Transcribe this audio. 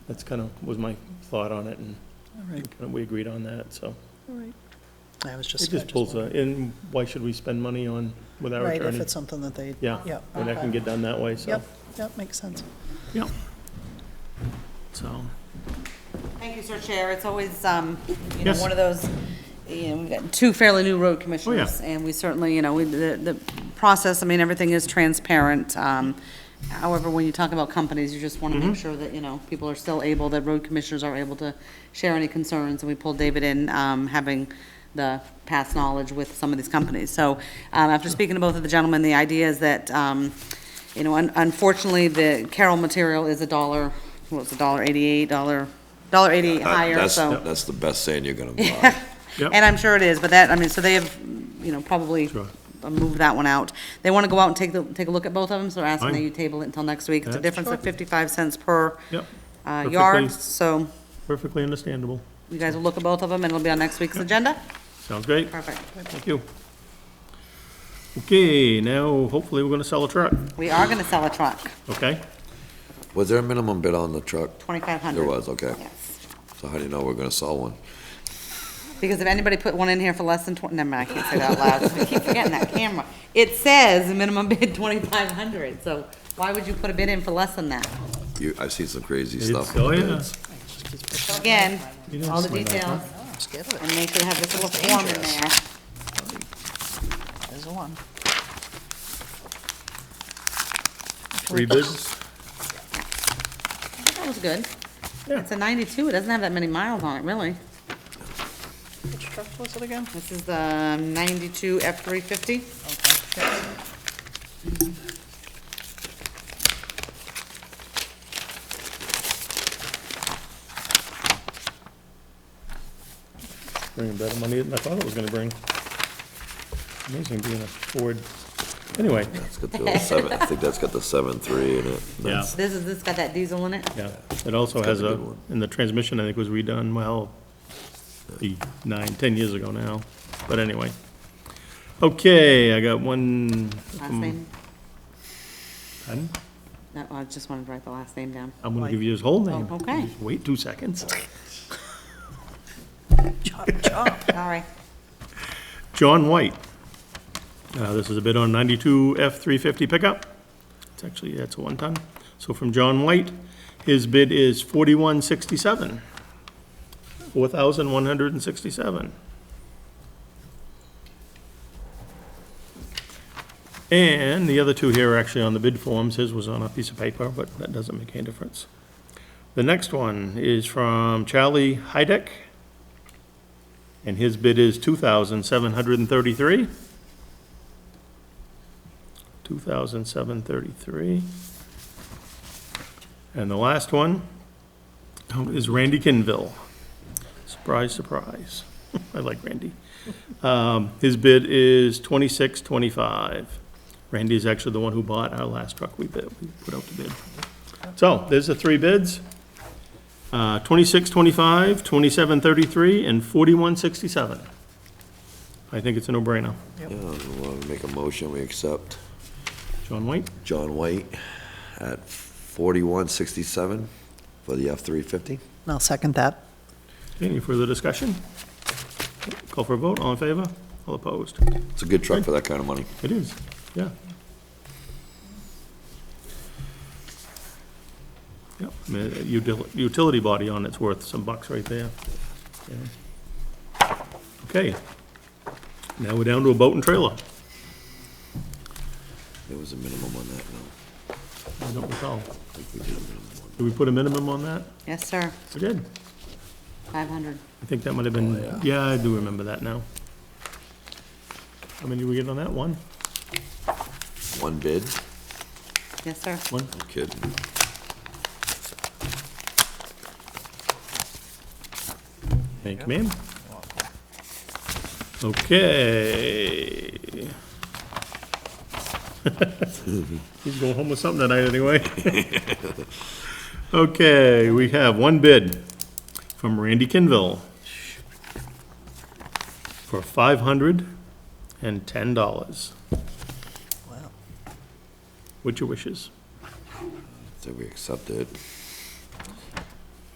That's kind of, was my thought on it, and All right, kinda we agreed on that, so. all right. I was just. It I just pulls, a- wondered. and why should we spend money on, with our Right, if attorney? it's something that they, Yeah, yeah, when that can get done that way, so. Yep. that makes sense. So, Thank you, sir chair. It's always, um, you know, Yes. one of those, you know, we've got two fairly new road Oh, commissioners. And we certainly, you know, we- the, the process, I mean, everything is transparent. Um, However, when you talk about companies, you just want to Mm-hmm. make sure that, you know, people are still able, that road commissioners are able to share any concerns. And we pulled David in, um, having the past knowledge with some of these companies. So um, after speaking to both of the gentlemen, the idea is that, um, you know, un- unfortunately, the Carroll material is a dollar, what was it, dollar eighty-eight, dollar, dollar eighty That- higher, Uh, that's- so. That's the best saying you're gonna buy. Yep. And I'm sure it is, but that, I mean, so they have, you know, probably Sure. moved that one out. They want to go out and take the, take a look at both of them, so they're asking that Fine. you table it until next week. It's a Yeah. difference of fifty-five cents per yep, uh, Perfectly. yard, so perfectly understandable. you guys will look at both of them, and it'll be on next week's agenda. Sounds great. Perfect. Thank you. Okay, now hopefully we're gonna sell a truck, We are going to sell a truck, okay? Was there a minimum bid on the truck? twenty-five hundred. There was, okay. Yes. So how do you know we're gonna sell one? Because if anybody put one in here for less than twenty, never mind, I can't say that out loud. I keep forgetting that camera. It says minimum bid twenty-five hundred, so why would you put a bid in for less than that? You, I've seen some crazy It's- stuff. oh, on yeah. bids. So Again, You didn't all the swing that, details, Oh, let's get it. and they should have this little form in there. There's one. Three bids, That was good. Yeah. It's a ninety-two, it doesn't have that many miles on it, really. Which truck was it again? This is the ninety-two F three fifty. bringing better money than I thought it was gonna bring. Amazing being a Ford, anyway, That's got the seven, I think that's got the seven three in it. yeah, This is, this got that diesel in it? yeah. It also It's got has a a, good one. and the transmission, I think, was redone, well, the nine, ten years ago now, but anyway. Okay, I got one. Last name? Pardon? No, I just wanted to write the last name down. I'm gonna give you his whole name. Oh, okay. Just Wait two seconds. Chop, chop. Sorry. John White. Uh, This is a bid on 92 F-350 pickup. It's actually, that's a one-ton. So from John White, his bid is 4167. 4,167. And the other two here are actually on the bid forms. His was on a piece of paper, but that doesn't make any difference. The next one is from Charlie Heideck, and his bid is two thousand seven hundred and thirty-three. Two thousand seven thirty-three. And the last one is Randy Kinville. Surprise, surprise. I like Randy. Um, his bid is twenty-six twenty-five. Randy is actually the one who bought our last truck we bid, we put out the bid. So, there's the three bids. Uh, 26, 25, 27, 33, and 41, 67. I think it's a no-brainer. Yeah, I wanna make a motion, we accept John White, John White at forty-one sixty-seven for the F three fifty. I'll second that. any further discussion? Call for a vote, all in favor, all opposed? It's a good truck for that kind of money. It is, yeah. Yep, I mean, a util- utility body on it's worth some bucks right there. Yeah. Okay. Now we're down to a boat and trailer. There was a minimum on that, no. I don't recall. Did we put a minimum on that? Yes, sir, We did. five hundred. I think that might have been, yeah, I do remember that now. How many did we get on that? One? One bid, Yes, sir. One? No kidding. Thank you, ma'am. Okay. He's going home with something tonight anyway. Okay, we have one bid from Randy Kinville for five hundred and ten dollars. Wow. What's your wishes? So we accept it.